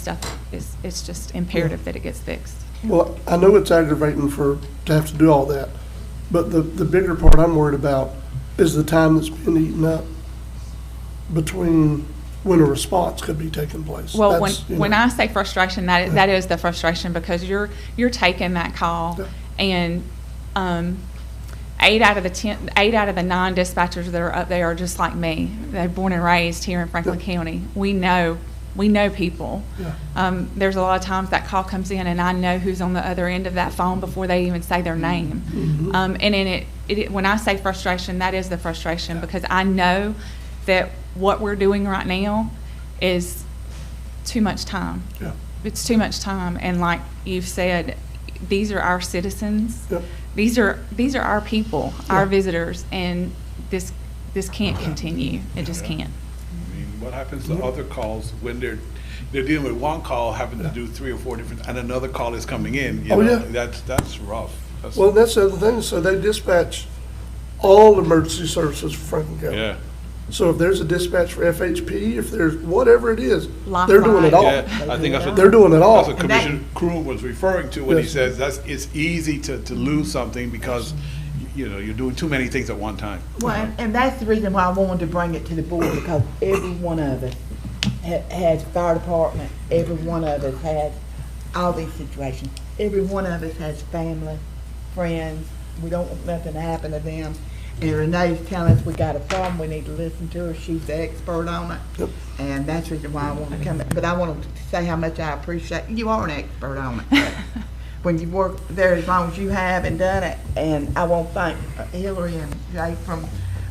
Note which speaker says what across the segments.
Speaker 1: stuff. It's, it's just imperative that it gets fixed.
Speaker 2: Well, I know it's aggravating for, to have to do all that, but the, the bigger part I'm worried about is the time that's been eaten up between when a response could be taking place.
Speaker 1: Well, when,
Speaker 2: That's, you know,
Speaker 1: when I say frustration, that, is- that is the frustration because you're, you're taking that call
Speaker 2: Yeah.
Speaker 1: and, um, eight out of the ten, eight out of the nine dispatchers that are up there are just like me. They're born and raised here in Franklin
Speaker 2: Yeah.
Speaker 1: County. We know, we know people.
Speaker 2: Yeah.
Speaker 1: Um, there's a lot of times that call comes in and I know who's on the other end of that phone before they even say their name.
Speaker 2: Mhm.
Speaker 1: Um, and in it, it, when I say frustration, that is the frustration because I know that what we're doing right now is too much time.
Speaker 2: Yeah,
Speaker 1: It's too much time. And like you've said, these are our citizens.
Speaker 2: Yep.
Speaker 1: These are, these are our people, our
Speaker 2: Yeah.
Speaker 1: visitors, and this, this can't continue. It just can't.
Speaker 3: I mean, what happens to other calls when they're, they're dealing with one call, having to do three or four different, and another call is coming in, you
Speaker 2: Oh,
Speaker 3: know?
Speaker 2: yeah.
Speaker 3: That's, that's rough. That's-
Speaker 2: well, that's the other thing, so they dispatch all emergency services for Franklin County.
Speaker 3: Yeah,
Speaker 2: So if there's a dispatch for FHP, if there's whatever it is, they're doing it all.
Speaker 3: yeah, I think that's what.
Speaker 2: They're doing it all.
Speaker 3: That's what
Speaker 1: And that-
Speaker 3: Commissioner Crew was referring to when he
Speaker 2: Yes.
Speaker 3: says that's, it's easy to, to lose something because, you know, you're doing too many things at one time.
Speaker 4: Oh,
Speaker 5: Well, and- and that's the reason why I wanted to bring it to the board, because every one of us ha- has fire department, every one of us has all these situations. Every one of us has family, friends, we don't want nothing to happen to them. And Renee's telling us we got a problem, we need to listen to her, she's the expert on it. And that's the reason why I want to come, but I want to say how much I appreciate, you are an expert on it. when you work there as long as you have and done it. And I want to thank uh, Hillary and Jay from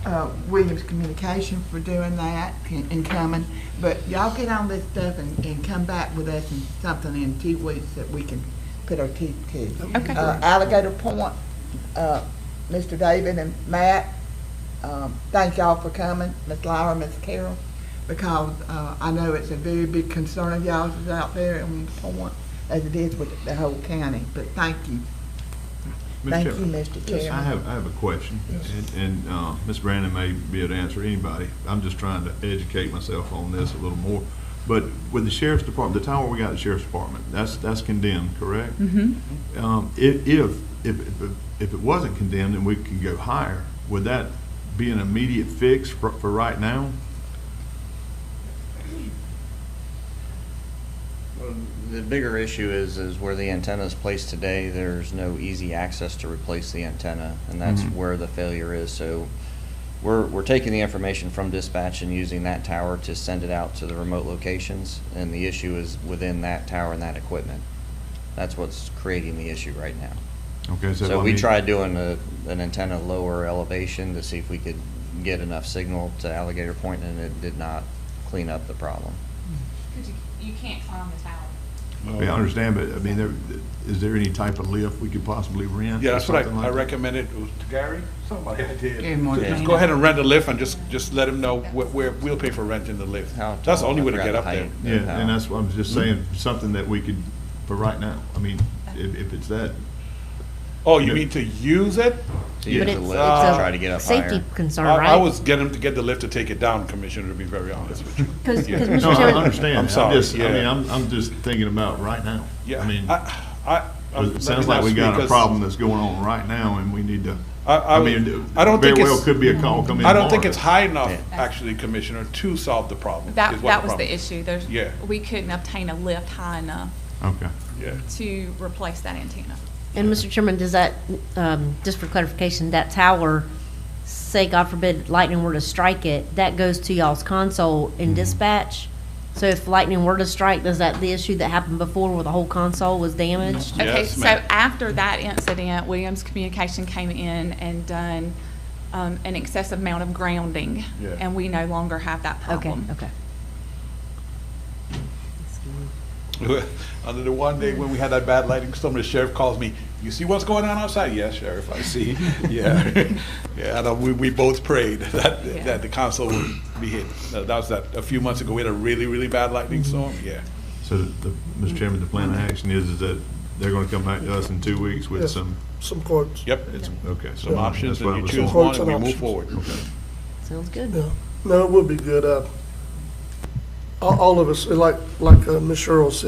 Speaker 5: uh, Williams Communication for doing that and and coming. But y'all get on this stuff and, and come back with us and something in two weeks that we can put our teeth to.
Speaker 1: Okay.
Speaker 5: Uh, Alligator Point, uh, Mr. David and Matt, um, thank y'all for coming, Miss Lyra, Miss Carol, because uh, I know it's a very big concern of y'all's is out there in the point, as it is with the whole county, but thank you.
Speaker 4: Mr.
Speaker 5: Thank you,
Speaker 4: Chairman,
Speaker 5: Mr.
Speaker 4: I
Speaker 5: Chairman.
Speaker 4: have, I have a question, and- and uh, Ms. Brandon may be able to answer anybody. I'm just trying to educate myself on this a little more. But with the sheriff's department, the tower we got at the sheriff's department, that's, that's condemned, correct?
Speaker 1: Mm-hmm.
Speaker 3: Mm-hmm.
Speaker 4: Um, i- If, if, if if it wasn't condemned and we could go higher, would that be an immediate fix for, for right now?
Speaker 6: The bigger issue is, is where the antenna is placed today, there's no easy access to replace the antenna, and that's
Speaker 4: Mhm.
Speaker 6: where the failure is. So we're, we're taking the information from dispatch and using that tower to send it out to the remote locations, and the issue is within that tower and that equipment. That's what's creating the issue right now.
Speaker 4: Okay, so.
Speaker 6: So
Speaker 4: I
Speaker 6: we
Speaker 4: mean-
Speaker 6: tried doing a, an antenna lower elevation to see if we could get enough signal to Alligator Point, and it did not clean up the problem.
Speaker 1: You can't climb the tower.
Speaker 4: Yeah, I understand, but I mean, there, is there any type of lift we could possibly rent?
Speaker 3: Yeah,
Speaker 4: or
Speaker 3: that's what
Speaker 4: something
Speaker 3: I,
Speaker 4: like
Speaker 3: I
Speaker 4: that?
Speaker 3: recommended it was to Gary, somebody I did.
Speaker 7: Gary
Speaker 3: So Just go ahead and rent a lift and just, just let him know where, where, we'll pay for renting the lift.
Speaker 6: How
Speaker 3: That's the
Speaker 6: tall?
Speaker 3: only
Speaker 6: I
Speaker 3: way to
Speaker 6: forgot
Speaker 3: get
Speaker 6: the
Speaker 3: up there.
Speaker 6: height.
Speaker 4: Yeah, and that's what I'm
Speaker 3: Hmm?
Speaker 4: just saying, something that we could, for right now, I mean, if, if it's that,
Speaker 3: Oh, you mean to use it?
Speaker 6: So you
Speaker 4: But
Speaker 6: have
Speaker 4: it's- uh,
Speaker 6: to lift,
Speaker 3: it's a
Speaker 6: try to get up higher.
Speaker 7: Safety concern,
Speaker 3: Ah. I, I
Speaker 7: right?
Speaker 3: was getting to get the lift to take it down, Commissioner, to be very honest with you.
Speaker 7: Because,
Speaker 3: Yeah.
Speaker 7: Mr.
Speaker 4: no, I
Speaker 7: Chairman-
Speaker 4: understand.
Speaker 3: I'm sorry,
Speaker 4: just- I mean,
Speaker 3: yeah.
Speaker 4: I'm, I'm just thinking about right now.
Speaker 3: Yeah,
Speaker 4: I mean,
Speaker 3: I, I. I'm- let me
Speaker 4: it sounds like we
Speaker 3: not
Speaker 4: got
Speaker 3: speak
Speaker 4: a
Speaker 3: 'cause
Speaker 4: problem that's going on right now, and we need to,
Speaker 3: I, I,
Speaker 4: I
Speaker 3: would-
Speaker 4: mean,
Speaker 3: I don't
Speaker 4: very
Speaker 3: think
Speaker 4: well
Speaker 3: it's,
Speaker 4: could be a call coming
Speaker 3: I don't think
Speaker 4: tomorrow.
Speaker 3: it's high enough,
Speaker 6: Yeah.
Speaker 3: actually, Commissioner, to solve the problem.
Speaker 1: That,
Speaker 3: is what
Speaker 1: that was the
Speaker 3: problem-
Speaker 1: issue. There's,
Speaker 3: Yeah.
Speaker 1: we couldn't obtain a lift high enough
Speaker 4: Okay.
Speaker 3: Yeah.
Speaker 1: to replace that antenna.
Speaker 7: And Mr. Chairman, does that, um, just for clarification, that tower, say God forbid lightning were to strike it, that goes to y'all's console
Speaker 6: Mm-hmm.
Speaker 7: in dispatch? So if lightning were to strike, does that, the issue that happened before where the whole console was damaged?
Speaker 1: Okay,
Speaker 3: Yes,
Speaker 1: so
Speaker 3: ma'am.
Speaker 1: after that incident, Williams Communication came in and done um, an excessive amount of grounding.
Speaker 3: Yeah.
Speaker 1: And we no longer have that
Speaker 7: Okay,
Speaker 1: problem.
Speaker 7: okay.
Speaker 3: Under the one day when we had that bad lightning storm, the sheriff calls me, you see what's going on outside? Yes, sheriff, I see, yeah. Yeah, and uh, we, we both prayed that,
Speaker 1: Yeah.
Speaker 3: that the console would be hit. That that was that, a few months ago, we had a really, really bad lightning storm, yeah.
Speaker 4: So, the, Mr. Chairman, the plan of action is, is that they're gonna come back to us in two weeks with
Speaker 2: Yes.
Speaker 4: some,
Speaker 2: Some quotes.
Speaker 3: Yep,
Speaker 4: it's, okay. so
Speaker 3: some options,
Speaker 4: that's
Speaker 3: and
Speaker 4: what I
Speaker 3: you
Speaker 4: was
Speaker 3: choose one
Speaker 4: wondering.
Speaker 3: and we move
Speaker 2: Options.
Speaker 3: forward.
Speaker 7: Sounds good.
Speaker 2: Yeah, no, it would be good. Uh, all, all of us, like, like uh, Ms. Cheryl said,